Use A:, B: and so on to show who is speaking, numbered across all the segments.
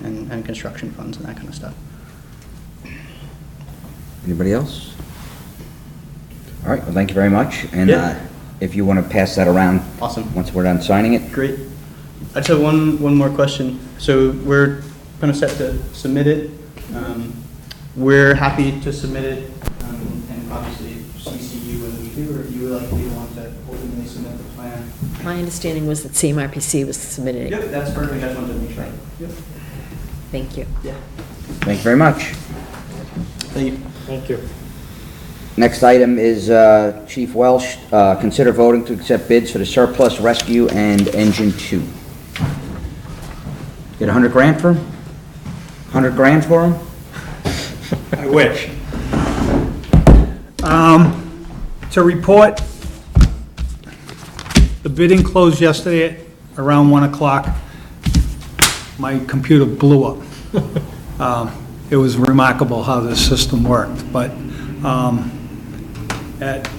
A: and construction funds and that kind of stuff.
B: Anybody else? All right, well, thank you very much. And
A: Yeah.
B: uh, if you want to pass that around.
A: Awesome.
B: Once we're done signing it.
A: Great. I just have one, one more question. So we're kind of set to submit it. Um, We're happy to submit it, um, and obviously CC you when we do, or if you would like to be the one to ultimately submit the plan.
C: My understanding was that CMRPC was submitting it.
A: Yep, that's perfect, I just wanted to make sure. Yep.
C: Thank you.
A: Yeah.
B: Thank you very much.
A: Thank you.
D: Thank you.
B: Next item is uh, Chief Welsh, uh, consider voting to accept bids for the surplus rescue and engine two. Get a hundred grand for him? Hundred grand for him?
D: I wish. Um, To report, the bidding closed yesterday at around 1 o'clock. My computer blew up. Um, It was remarkable how this system worked, but um, at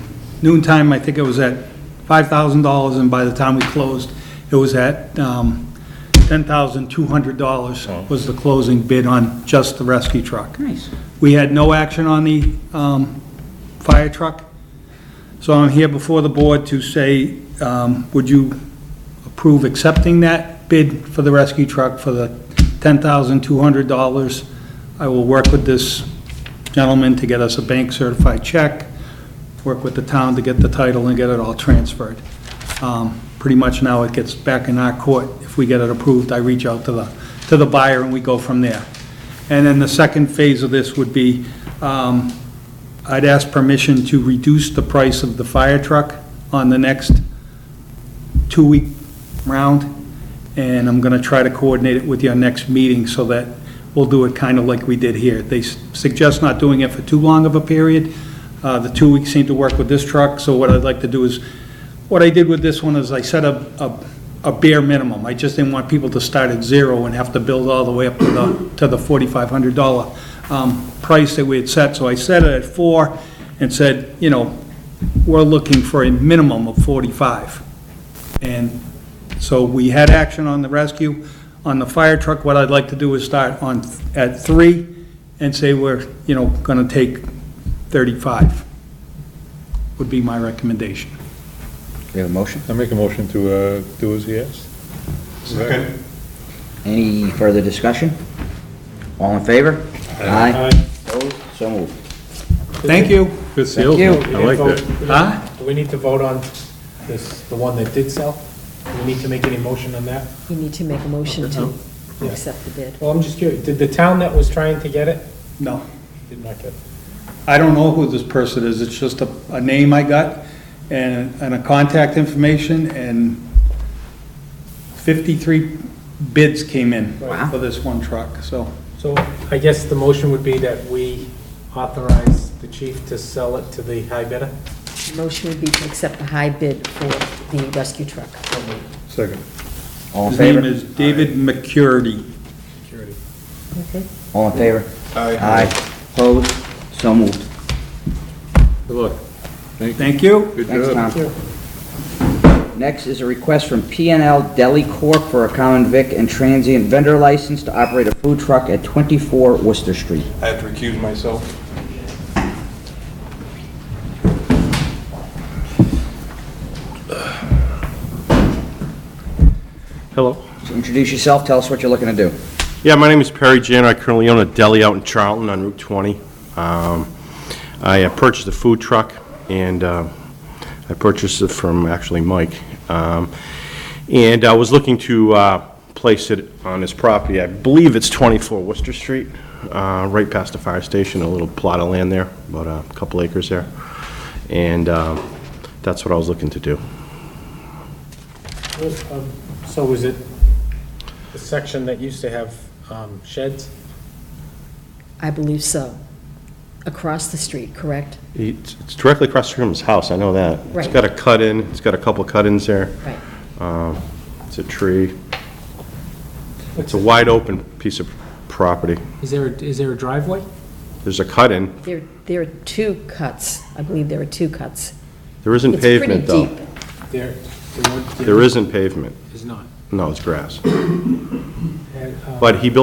D: noon time, I think it was at $5,000, and by the time we closed, it was at um, $10,200 was the closing bid on just the rescue truck.
B: Nice.
D: We had no action on the um, fire truck, so I'm here before the board to say, um, would you approve accepting that bid for the rescue truck for the $10,200? I will work with this gentleman to get us a bank-certified check, work with the town to get the title and get it all transferred. Um, Pretty much now it gets back in our court. If we get it approved, I reach out to the, to the buyer and we go from there. And then the second phase of this would be, um, I'd ask permission to reduce the price of the fire truck on the next two-week round, and I'm going to try to coordinate it with your next meeting so that we'll do it kind of like we did here. They s- suggest not doing it for too long of a period. Uh, The two weeks seem to work with this truck, so what I'd like to do is, what I did with this one is I set a, a- a bare minimum. I just didn't want people to start at zero and have to build all the way up to the, to the $4,500 um, price that we had set. So I set it at four and said, you know, we're looking for a minimum of 45. And so we had action on the rescue. On the fire truck, what I'd like to do is start on, at three and say we're, you know, gonna take thirty-five, would be my recommendation.
B: We have a motion?
E: I make a motion to uh, do as he asked.
B: Any further discussion? All in favor? Aye. Opposed? So moved.
D: Thank you.
E: Good
B: sales, you. man.
E: I like that.
D: Huh?
F: Do we need to vote on this, the one that did sell? Do we need to make any motion on that?
C: You need to make a motion to accept the bid.
F: Well, I'm just curious, did the town that was trying to get it,
D: No,
F: did not get it?
D: I don't know who this person is. It's just a, a name I got and, and a contact information and fifty-three bids came in
B: Wow.
D: for this one truck, so.
F: So I guess the motion would be that we authorize the chief to sell it to the high bidder?
C: Motion would be to accept the high bid for the rescue truck.
E: Second.
B: All in
D: His name
B: favor?
D: is David McCurdy.
F: Security.
C: Okay.
B: All in favor? Aye. Aye. Opposed? So moved.
E: Good luck.
D: Thank you.
E: Good
B: Thanks,
E: job.
B: Tom. Next is a request from PNL Deli Corp. for a common vic and transient vendor license to operate a food truck at 24 Worcester Street.
G: I have to recuse myself.
H: Hello.
B: So Introduce yourself, tell us what you're looking to do.
H: Yeah, my name is Perry Jano. I currently own a deli out in Charlton on Route 20. Um, I uh, purchased a food truck, and uh, I purchased it from actually Mike. Um, And I was looking to uh, place it on his property. I believe it's 24 Worcester Street, uh, right past the fire station, a little plot of land there, about a couple acres there. And um, that's what I was looking to do.
F: Um, So was it the section that used to have um, sheds?
C: I believe so. Across the street, correct?
H: It's it's directly across from his house, I know that. It's
C: Right.
H: got a cut-in, it's got a couple cut-ins there.
C: Right.
H: Um, It's a tree. It's
F: What's
H: a
F: it-
H: wide open piece of property.
F: Is there, is there a driveway?
H: There's a cut-in.
C: There, there are two cuts. I believe there are two cuts.
H: There isn't
C: It's pretty
H: pavement, though.
C: deep.
F: There, there weren't-
H: There isn't pavement.
F: Is not.
H: No, it's grass.
F: And, um,
H: But he built